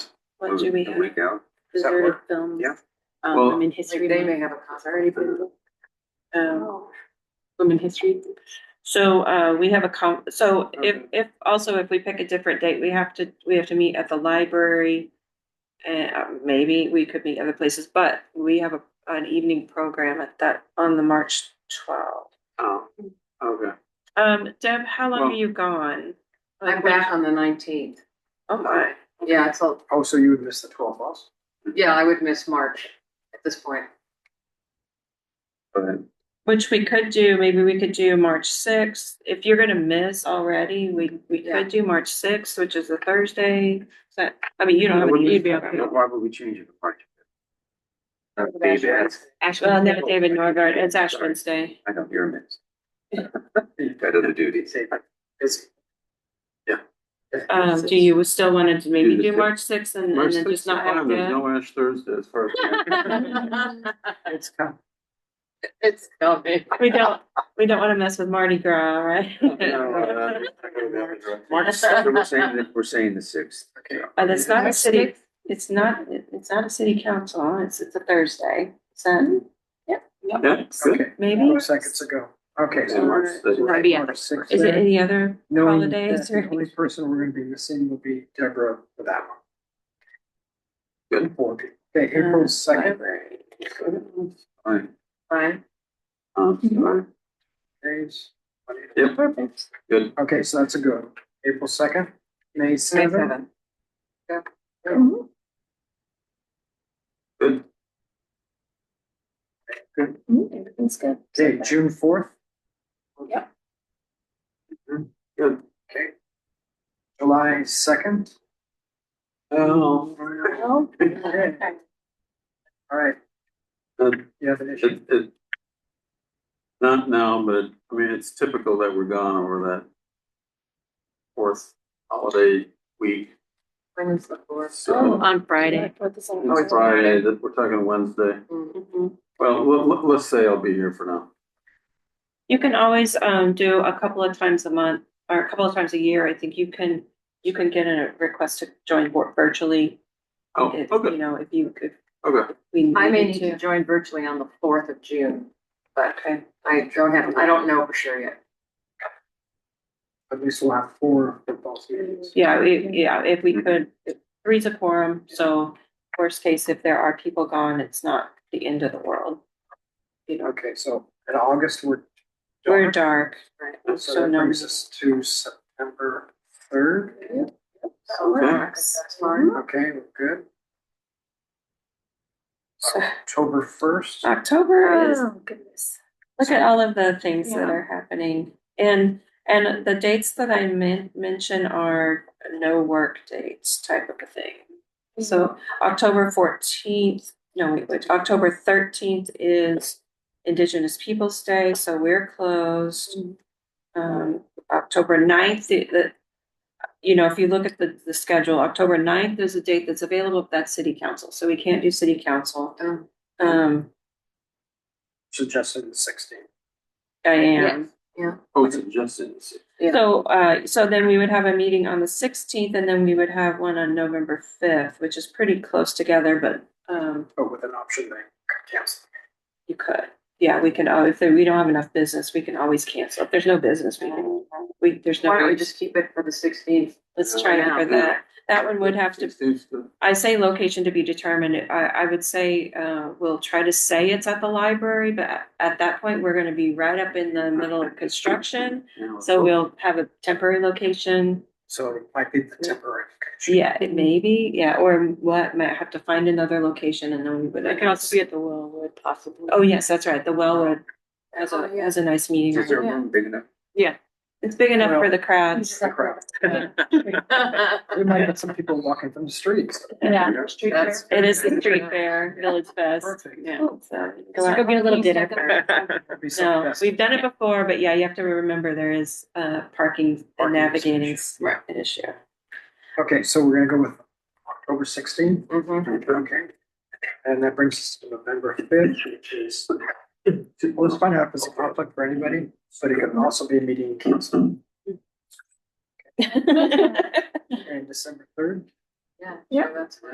What do we The have? week out. Does that Deserted work? films. Yeah. Um, Well- women history. they may Month, have a Oh. concert. Already been. Um, women history. So, uh, we have a com, so if, Okay. if, also if we pick a different date, we have to, we have to meet at the library. And uh, maybe we could meet other places, but we have a, an evening program at that, on the March twelfth. Oh, okay. Um, Deb, how long are Well- you gone? I'm back on the nineteenth. Oh my, Yeah, it's all, Oh, so you would miss the twelve bus? yeah, I would miss March at this point. Go ahead. which we could do, maybe we could do March sixth. If you're gonna miss already, we, we Yeah. could do March sixth, which is a Thursday. Is that, I mean, you don't have, Why would any- we- you'd be okay. Why would we change it? Why? Uh, That's Dave asked. Well, no, David Norgard, it's Ash Wednesday. I know, you're a mess. Got other duties. It's. Yeah. Um, do you still want to maybe Do the do sixth. March sixth and and then just not have to? Ash Thursday as far right. It's kind It's coming. We don't, we don't want to mess with Mardi Gras, right? Oh, uh, March, so we're saying, that- we're saying the sixth. Okay. And it's not a city, it's not, it's not a city council, it's, it's a Thursday, so Yeah, of, good. okay, maybe. four seconds ago. Okay. So so March the- March 6th, Is it any other knowing holidays that The or? only person we're gonna be missing will be Deborah for that one. Good. Four people. Okay, April second, Fine. Fine. Um, fine. days. Yep. Perfect. Good. Okay, so that's a good, one. April second, May May seventh. seventh. Good. Mm-hmm. Everything's good. Okay, June fourth. Mm-hmm. Good. Okay. July second. Oh. Okay. All right, It, you have an issue? it, it- not now, but I mean, it's typical that we're gone over that fourth holiday week, When is the fourth? so Oh, On Friday. it's Friday, that we're talking Wednesday. Mm, Mm-hmm. Well, let, let, let's say I'll be here for now. You can always, um, do a couple of times a month or a couple of times a year. I think you can, you can get a request to join vir- virtually. Oh, If, You okay, know, if you, if okay. we. I may needed need to join virtually on the fourth of June, but Okay. I don't have, I don't know for sure yet. At least we'll have four football seasons. Yeah, we- yeah, if Mm-hmm. we could, three's a quorum, so worst case, if there are people gone, it's not the end of the world. Okay, so in August, we're. We're dark, done. So so that no, brings us to September third. That's fine. Okay, we're good. So- October first. October is, goodness. look at all of the things that are happening. And, and the dates that I men- mention are no work dates type of a thing. So October fourteenth, no, wait, wait, October thirteenth is Indigenous Peoples' Day, so we're closed. Um, October 9th, the, the- you know, if you look at the, the schedule, October 9th is a date that's available, that's city council, so we can't do city council. Oh. Um, Suggested the sixteenth. I am, Oh, it's Justin. Yeah. so, uh, so then we would have a meeting on the sixteenth, and then we would have one on November fifth, which is pretty close together, but, um, But with an option they could cancel. You could, yeah, we can, al- if there- we don't have enough business, we can always cancel. If there's no business, we can, we, there's Why don't we no, just keep it for the sixteenth? let's try Yeah. for that. That one would have to, I say location to be determined. I, I would say, uh, we'll try to say it's at the library, but at- at that point, we're gonna be right up in the middle of construction. So we'll have a temporary location. So it might be the temporary. location. Yeah, it may be, yeah, or what, might have to find another location and then we would. It can also be at the Wellwood possibly. Oh, yes, that's right. The Wellwood has Oh, a, yeah. has a nice meeting. Is there a room. room big enough? It's big enough for Well- the crowds. We might have some people walking from the streets. Yeah. That's- It is the street fair, village fest. Perfect. Yeah. so go So go out. get a little dinner first. That'd be so No, festive. we've done it before, but yeah, you have to remember there is uh parking and Parking is an navigating is Right. an issue. Okay, so we're gonna go with October sixteenth. Mhm. Okay. And that brings us to November fifth, which is, let's find out if it's a conflict for anybody, but it could also be a meeting canceled. And December third. Yeah. Yeah. That's fine.